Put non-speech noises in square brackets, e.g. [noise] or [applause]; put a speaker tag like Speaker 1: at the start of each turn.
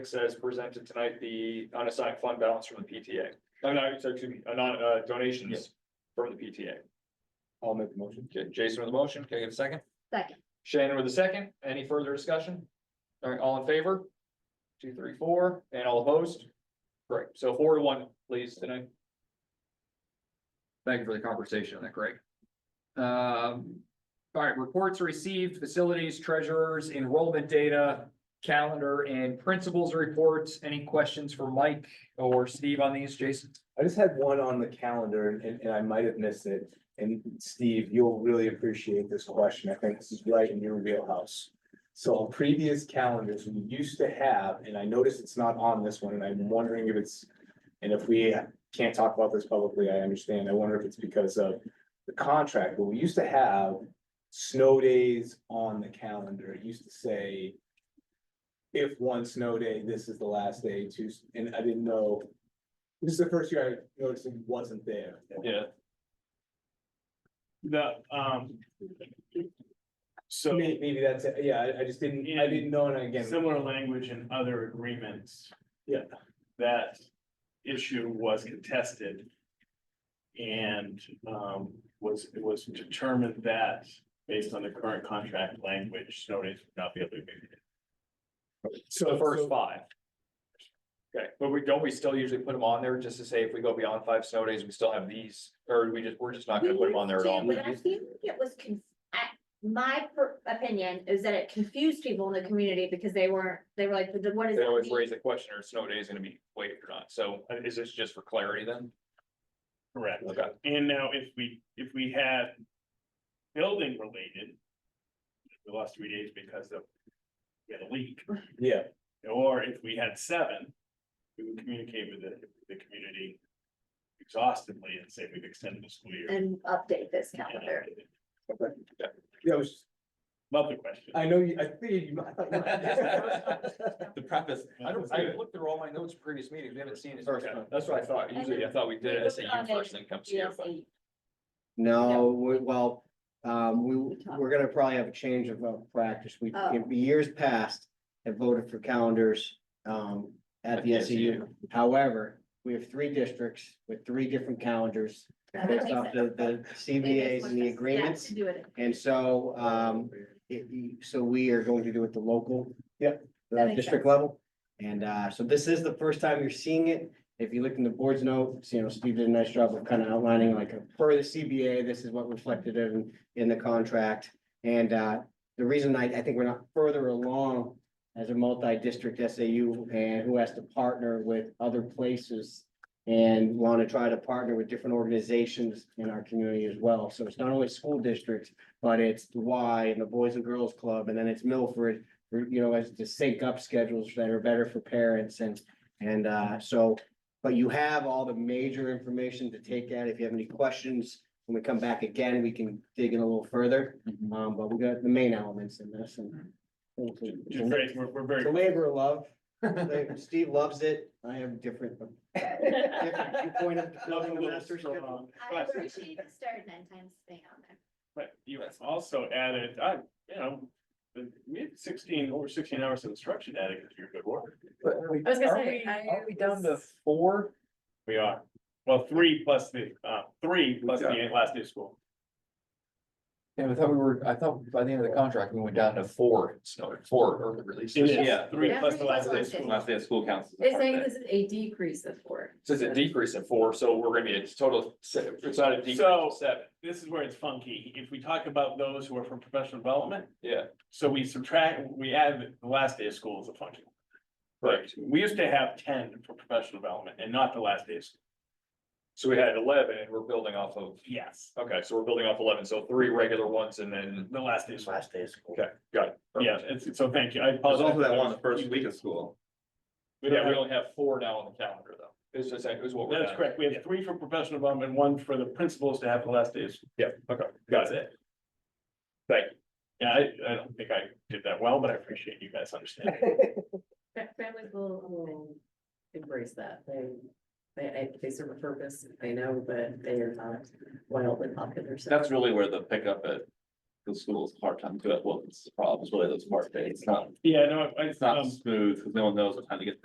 Speaker 1: as presented tonight, the unassigned fund balance from the PTA. I'm not, sorry, excuse me, uh, non, uh, donations from the PTA.
Speaker 2: I'll make the motion.
Speaker 1: Okay, Jason with a motion, can I get a second?
Speaker 3: Second,
Speaker 1: Shannon with a second, any further discussion? All right, all in favor? Two, three, four, and all opposed? Great, so four to one, please, tonight. Thank you for the conversation on that, Greg. Um, all right, reports received, facilities, treasurers, enrollment data, calendar and principals reports. Any questions for Mike or Steve on these, Jason?
Speaker 2: I just had one on the calendar and- and, and I might have missed it. And Steve, you'll really appreciate this question. I think this is right in your wheelhouse. So on previous calendars, we used to have, and I noticed it's not on this one, and I'm wondering if it's. And if we can't talk about this publicly, I understand. I wonder if it's because of the contract, but we used to have. Snow days on the calendar. It used to say. If one snow day, this is the last day to, and I didn't know. This is the first year I noticed it wasn't there.
Speaker 4: Yeah. The, um.
Speaker 2: May-
Speaker 4: So
Speaker 2: Maybe that's, it. yeah, I, I just didn't, I didn't know, and again,
Speaker 4: similar language in other agreements.
Speaker 2: Yeah.
Speaker 4: That issue was contested. And, um, was, it was determined that based on the current contract language, snow days would not be able to be.
Speaker 1: The
Speaker 2: so
Speaker 1: first
Speaker 2: first,
Speaker 1: five. Okay, but we, don't we still usually put them on there just to say if we go beyond five snow days, we still have these, or we just, we're just not gonna put them on there at all?
Speaker 3: But I feel like it was, conf- I- my per- opinion is that it confused people in the community because they weren't, they were like, "But what is
Speaker 1: They
Speaker 3: that
Speaker 1: always
Speaker 3: mean?"
Speaker 1: raise the question, are snow days gonna be waived or not? So uh, is this just for clarity then?
Speaker 4: Correct.
Speaker 1: Okay,
Speaker 4: And now if we, if we had building related. We lost three days because of. We had a leak.
Speaker 2: yeah,
Speaker 4: Or if we had seven, we would communicate with the, the community exhaustively and say we've extended the school year. uh,
Speaker 3: And update this calendar.
Speaker 2: yeah, I was,
Speaker 4: Love the question.
Speaker 2: I know, you. I figured you might.
Speaker 5: [laughs] The preface.
Speaker 1: I don't, I looked through all my notes from previous meetings, we haven't seen it.
Speaker 2: First
Speaker 1: Okay,
Speaker 2: one.
Speaker 1: That's what I thought, usually I thought we did it SAU first, then comes here, but
Speaker 3: GSA.
Speaker 6: No, we, well, um, we,
Speaker 3: We talked.
Speaker 6: we're gonna probably have a change of uh, practice. We,
Speaker 3: Oh.
Speaker 6: in years past, have voted for calendars, um, at the SEU. However, we have three districts with three different calendars.
Speaker 3: That
Speaker 6: Based
Speaker 3: makes
Speaker 6: off
Speaker 3: sense.
Speaker 6: the, the
Speaker 3: Maybe
Speaker 6: CBAs and the
Speaker 3: it's what- yeah,
Speaker 6: agreements.
Speaker 3: to Do it.
Speaker 6: And so, um, it- you- so we are going to do it the local.
Speaker 2: Yep.
Speaker 6: uh,
Speaker 3: That makes
Speaker 6: district
Speaker 3: sense.
Speaker 6: level. And uh, so this is the first time you're seeing it. If you look in the board's notes, you know, Steve did a nice job of kind of outlining like per the CBA, this is what reflected in in the contract. And uh, the reason I I think we're not further along as a multi-district SAU and who has to partner with other places and want to try to partner with different organizations in our community as well. So it's not only school districts, but it's the Y and the Boys and Girls Club, and then it's Milford. You know, as to sync up schedules that are better for parents and, and, uh, so. But you have all the major information to take at. If you have any questions, when we come back again, we can dig in a little further.
Speaker 4: Mm-hmm.
Speaker 6: Um, but we got the main elements in this and.
Speaker 4: Just very- We're, we're very,
Speaker 6: It's a labor of
Speaker 4: [laughs]
Speaker 6: love. Labor- Steve loves it. I have different. different viewpoint of building a master schedule.
Speaker 3: I appreciate the start and end times thing on there.
Speaker 4: but you also added, I, you know, we had sixteen, over sixteen hours of instruction added because you're good work.
Speaker 3: I was gonna
Speaker 1: Are
Speaker 3: say,
Speaker 1: we-
Speaker 3: I
Speaker 1: Aren't we down to
Speaker 3: was-
Speaker 1: four?
Speaker 4: We are. Well, three plus the, uh, three plus the last day of school.
Speaker 1: Yeah, I thought we were, I thought by the end of the contract, we went down to four snow, four early releases.
Speaker 4: It is
Speaker 5: Yeah.
Speaker 4: Three
Speaker 3: Yeah,
Speaker 4: plus
Speaker 3: three
Speaker 4: the
Speaker 3: plus
Speaker 4: last day of
Speaker 3: last day.
Speaker 5: [laughs]
Speaker 4: school.
Speaker 5: Last day of school counts. as a
Speaker 7: It's
Speaker 5: hard
Speaker 7: saying
Speaker 5: day.
Speaker 7: this is a decrease of four.
Speaker 1: Says a decrease of four, so we're gonna be at total, of se- it's not a decrease
Speaker 4: So-
Speaker 1: of seven,
Speaker 4: This is where it's funky. If we talk about those who are from professional development,
Speaker 1: yeah,
Speaker 4: So we subtract, we add the last day of school as a function.
Speaker 1: Correct.
Speaker 4: We used to have ten for professional development and not the last day of school.
Speaker 1: so we had eleven and we're building off of,
Speaker 4: Yes.
Speaker 1: okay, so we're building off eleven, so three regular ones and then.
Speaker 4: The last day of school.
Speaker 6: day of school.
Speaker 1: Okay, got it.
Speaker 4: Yeah, it's, so thank you. I
Speaker 5: There's
Speaker 4: apologize.
Speaker 5: also that one, the first week of school.
Speaker 4: We
Speaker 1: Yeah, we
Speaker 4: don't
Speaker 1: only have four now on the calendar though. It's just, it was what
Speaker 4: have-
Speaker 1: we're.
Speaker 4: That's
Speaker 1: down.
Speaker 4: correct. We have three for professional development, one for the principals to have the last day of school.
Speaker 1: Yeah, okay,
Speaker 4: That's
Speaker 1: got it.
Speaker 4: it. Thank you. Yeah, I, I don't think I did that well, but I appreciate you guys understanding. [laughs]
Speaker 7: Fa- Families will, will embrace that. They, they, I- they serve a purpose, they know, but they are not wildly popular. so-
Speaker 5: That's really where the pickup at.
Speaker 2: the school is a hard time to do it, well, it's the problem, it's really those part days, it's not,
Speaker 4: Yeah, no, I,
Speaker 2: it's not
Speaker 4: um,
Speaker 2: smooth, because no one knows what time to get